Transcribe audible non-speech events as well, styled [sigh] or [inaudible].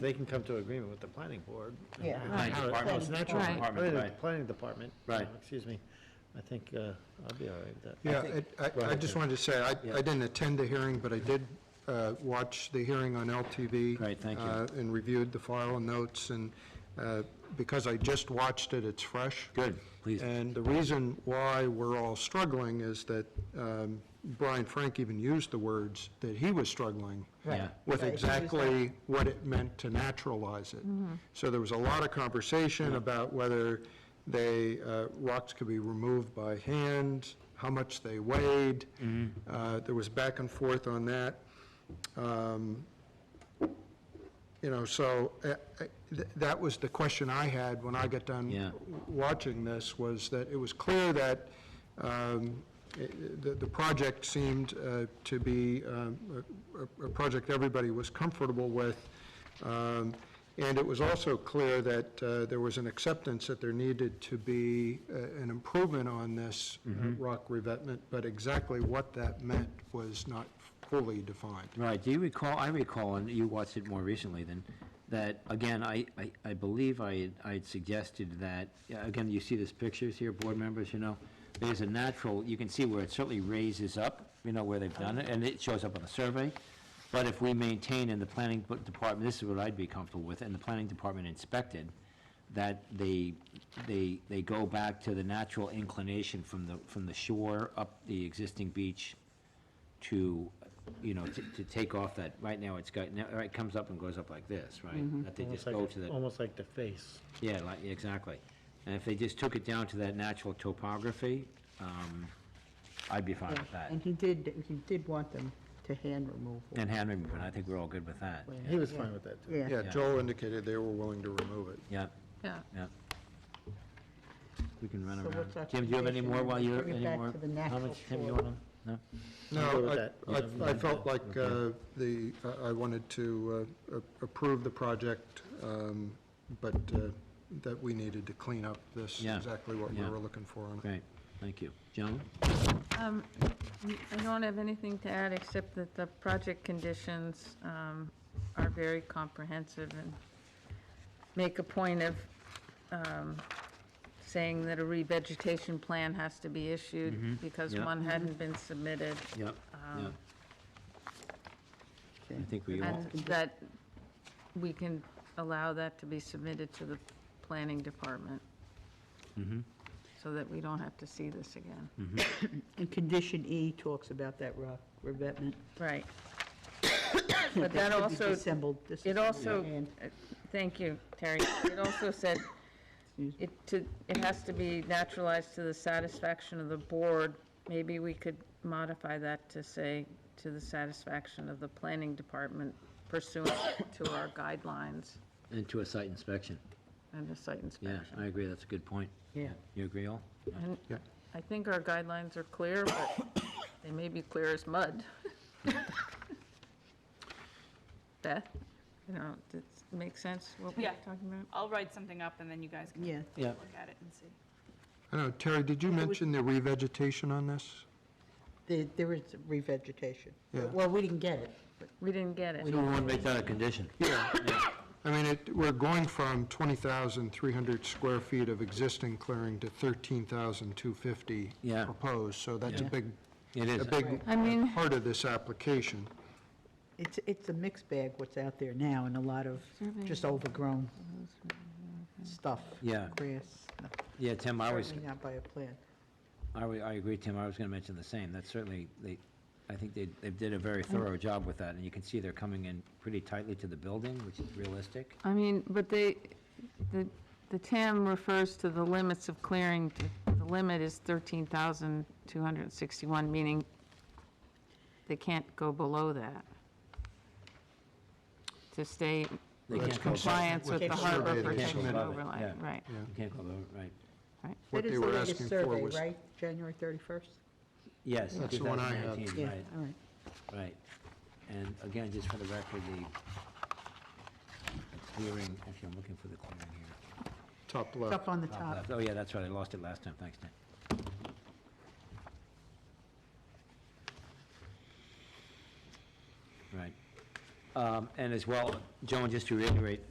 they can come to agreement with the planning board. Yeah. And Right. how it- Department. It's natural. Right. Department, Planning- right. Planning department. you Right. know, Excuse me. I think uh, I'll be all right with that. Yeah, it- Go I, I ahead, just Jim. wanted to say, I, Yeah. I didn't attend the hearing, but I did uh, watch the hearing on LTV. Great, thank you. uh, And reviewed the file notes, and uh, because I just watched it, it's fresh. Good, please. And the reason why we're all struggling is that um, Brian Frank even used the words that he was struggling Yeah. with Right, he used that. exactly what it meant to naturalize it. So there was a lot of conversation about whether they, uh, rocks could be removed by hand, how much they weighed. Mm-hmm. Uh, There was back and forth on that. Um, You know, so uh, I- th- that was the question I had when I got done Yeah. watching this, was that it was clear that um, i- the the project seemed uh, to be um, a a- a project everybody was comfortable with. Um, And it was also clear that uh, there was an acceptance that there needed to be uh, an improvement on this uh, rock revetment, but exactly what that meant was not fully defined. Right, do you recall, I recall, and you watched it more recently than, that, again, I, I, I believe I, I had suggested that, yeah, again, you see these pictures here, board members, you know? There's a natural, you can see where it certainly raises up, you know, where they've done it, and it shows up on the survey. But if we maintain in the planning bu- department, this is what I'd be comfortable with, and the planning department inspected, that they, they, they go back to the natural inclination from the, from the shore up the existing beach to, you know, to, to take off that, right now it's got, now, it comes up and goes up like this, Mm-hmm. right? That they Almost just like go a- to oh. the, Almost like the face. yeah, like, yeah, exactly. And if they just took it down to that natural topography, um, I'd be fine with that. And he did, he did want them to hand remove it. And hand removal, and I think we're all good with that. Well, He was fine with that, too. Yeah, Yeah, Joel indicated they were willing to remove it. Yeah, Yeah. yeah. We can run So what's our around. Tim, do you have any condition? more while Bring you're, it any back more to the natural comments? Tim, you floor. wanna? No? I'm good No, with I- that. I, I felt like uh, the, I- I wanted to uh, a- approve the project, um, but uh, that we needed to clean up this, Yeah, exactly what we yeah. were looking for on it. Great, thank you. Joan? Um, I don't have anything to add, except that the project conditions um, are very comprehensive and make a point of um, saying that a revegetation plan has to be issued because Mm-hmm. yeah. one hadn't been submitted, Yep, yeah. Um, I think we all, and that we can allow that to be submitted to the planning department. Mm-hmm. So that we don't have to see this again. Mm. and condition E talks about that rock revetment. [coughs] Right. But that should be also dissembled- It disassembled also, hand. uh, thank you, Terry. It also said, Excuse it to, it has to be naturalized to the satisfaction of the board. Maybe we could modify that to say, to the satisfaction of the planning department pursuant to our guidelines and to a site inspection. and the site Yeah, inspection. I agree, that's a good point. Yeah. You agree all? And I think our guidelines are clear, but they may be clear as [laughs] mud. Beth, you know, does it make sense what we're Yeah. talking about? I'll write something up and then you guys can Yeah, Yeah. look at it and see. I know, Terry, did you mention the revegetation on this? there, there is revegetation. Yeah. Well, we didn't get it. We didn't get it. So we want to make that a condition. Yeah. I mean, it, we're going from 20,300 square feet of existing clearing to 13,250 Yeah. proposed, so that's a Yeah. big, It a is. big I mean. part of this application. It's, it's a mixed bag what's out there now and a lot of just overgrown stuff. Yeah. Grass, no, Yeah, Tim, I was, certainly not by a plan. I, wa- I agree, Tim, I was going to mention the same. That's certainly, they, I think they, they did a Mm. very thorough job with that, and you can see they're coming in pretty tightly to the building, which is realistic. I mean, but they, the, the TAM refers to the limits of clearing, to- the limit is 13,261, meaning they can't go below that to stay They in can't go compliance with with the the harbor survey, they can't protection go above it, overlay, yeah. right, You can't go over, right. right. What That is they the were latest asking for survey, was Right, January 31st? Yes. That's the one I have. 2019, Yeah, Right, all right. right. And again, just for the record, the the clearing, actually, I'm looking for the clearing here. top It's left. up on the Top top. left. Oh, yeah, that's right, I lost it last time, thanks, Tim. Right. Um, And as well, Joan, just to reiterate,